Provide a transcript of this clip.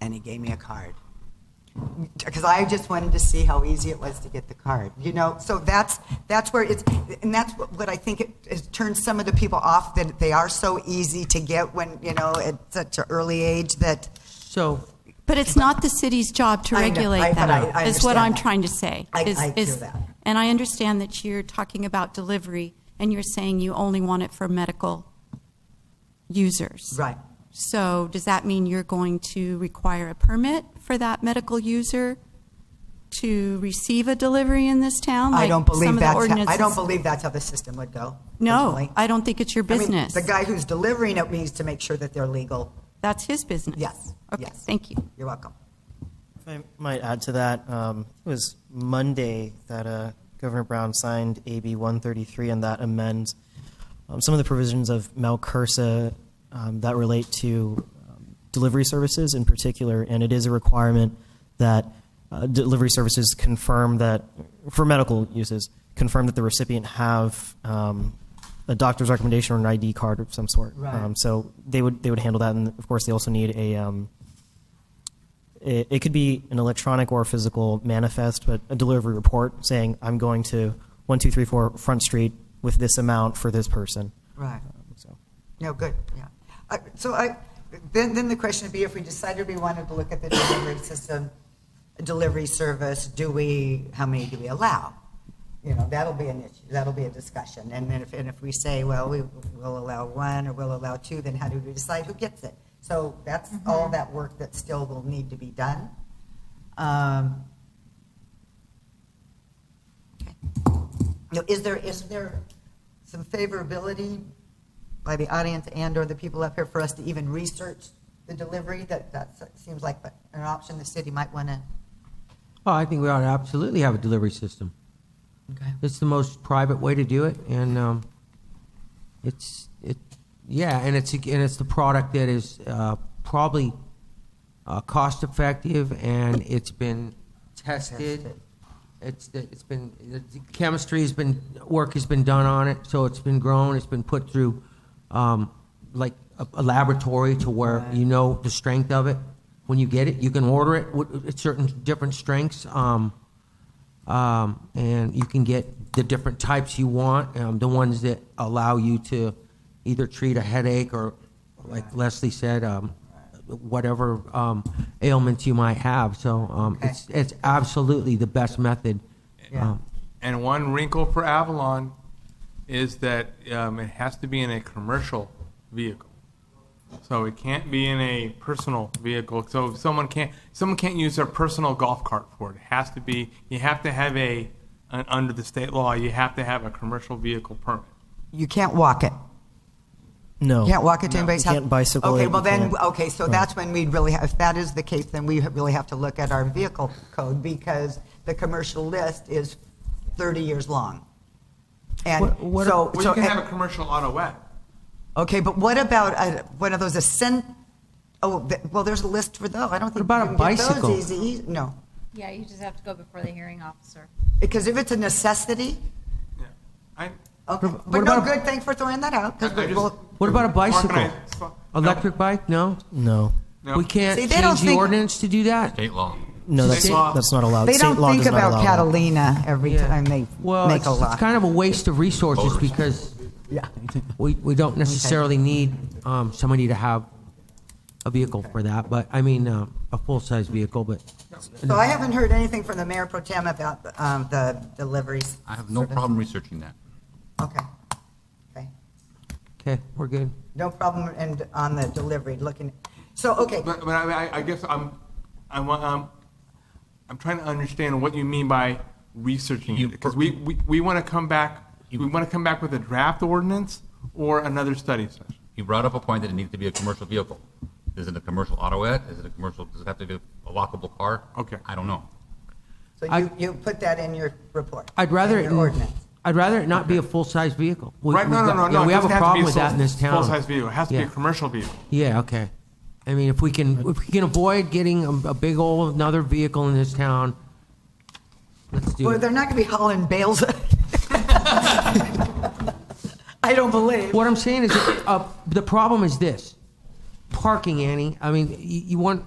and he gave me a card. Because I just wanted to see how easy it was to get the card, you know? So that's, that's where it's, and that's what what I think it it turns some of the people off, that they are so easy to get when, you know, at such an early age that, So, But it's not the city's job to I know, I- regulate but I- I that, is what understand I'm that. trying to say. I- is- I hear is- that. And I understand that you're talking about delivery, and you're saying you only want it for medical users. right. So does that mean you're going to require a permit for that medical user to receive a delivery in this town? I like don't some believe of the that's, how- I ordinances- don't believe that's how the system would go. No, personally. I don't think it's your I mean, business. The guy who's delivering it needs to make sure that they're legal. That's his business. Yes, Okay, yes. thank you. You're welcome. If I might add to that, um, it was Monday that uh, Governor Brown signed AB 133, and that amends um, some of the provisions of Malcursa um, that relate to um, delivery services in particular, and it is a requirement that uh, delivery services confirm that, for medical uses, confirm that the recipient have um, a doctor's recommendation or an ID card of some sort. Right. Um, so they would they would handle that, and of course they also need a um, it, it could be an electronic or physical manifest, but a delivery report saying, I'm going to 1234 Front Street with this amount for this person. Right. So. No, good, yeah. Uh, So I, then, then the question would be, if we decided we wanted to look at the delivery system, delivery service, do we, how many do we allow? You know, that'll be an issue, that'll be a discussion. And then if, and if we say, well, we will allow one, or we'll allow two, then how do we decide who gets it? So that's all that work that still will need to be done. Um, Now, is there, is there some favorability by the audience and/or the people up here for us to even research the delivery? That, that seems like an option the city might want to. oh, I think we ought to absolutely have a delivery system. Okay. It's the most private way to do it, and um, it's it, yeah, and it's and it's the product that is uh, probably uh, cost effective, and it's been tested. Tested. It's it's been the chemistry has been work has been done on it, so it's been grown. It's been put through um, like a, a laboratory to where you know the strength of it. When you get it, you can order it with- at certain different strengths. Um, um, and you can get the different types you want, um, the ones that allow you to either treat a headache or, like Leslie said, um, whatever um, ailments you might have. So um, Okay. it's it's absolutely the best method. Yeah. Oh. Um, And one wrinkle for Avalon is that um, it has to be in a commercial vehicle. So it can't be in a personal vehicle. So if someone can't someone can't use their personal golf cart for it. It has to be you have to have a an, under the state law you have to have a commercial vehicle permit. You can't walk it. No. You can't walk it to No. anybody's You house? can't bicycle it, Okay, you well then, can't- okay, so Right. that's when we'd really, have- if that is the case, then we really have to look at our vehicle code because the commercial list is 30 years long. And What- what- so. Well, so- you can eh, have a commercial auto app. Okay, but what about uh, one of those ascent? Oh, th- well, there's a list for those. I don't think about you can a get those bicycle? easy- easy. e, No, Yeah, you just have to go before the hearing officer. because if it's a necessity, Yeah. I, okay. What But no, about- good. Thank for throwing that out. I, I Because just- we'll, What about a bicycle? Organized- no. Electric bike? No, No. No. we can't See, they don't change the think- ordinance to do that. State law. No, that's, State law. that's not allowed. they State don't law think does not about allow that. Catalina every Yeah. time they well, make it's, a it's law. kind of a waste of resources Voters. because yeah. we, we don't necessarily need um, somebody to have a vehicle for that, but I mean uh, a full size vehicle, but. So I haven't heard anything from the mayor pro tem about um, the deliveries. I have no service. problem researching that. Okay. Okay. Okay, we're good. No problem. And on the delivery, looking. So okay. But, but I, I- I guess I'm, I'm, um, I'm trying to understand what you mean by researching You it, because per- we, we, we want to come back, we want to come back with a draft ordinance or another study session. You brought up a point that it needs to be a commercial vehicle. Is it a commercial autoette? Is it a commercial, does it have to be a lockable car? Okay. I don't know. So I- you, you put that in your report. I'd rather in it, your ordinance. I'd rather it not be a full size vehicle. We, Right, we've no, no, got- no, yeah, no. it we have a doesn't to be problem with that in this town. Full-size vehicle, it has to be Yeah. a commercial vehicle. Yeah, okay. I mean, if we can, if we can avoid getting a, a big old another vehicle in this town, let's do Well, it. they're not going to be hauling bales. I don't believe. What I'm saying is, uh, the problem is this: parking, Annie. I mean, you, you want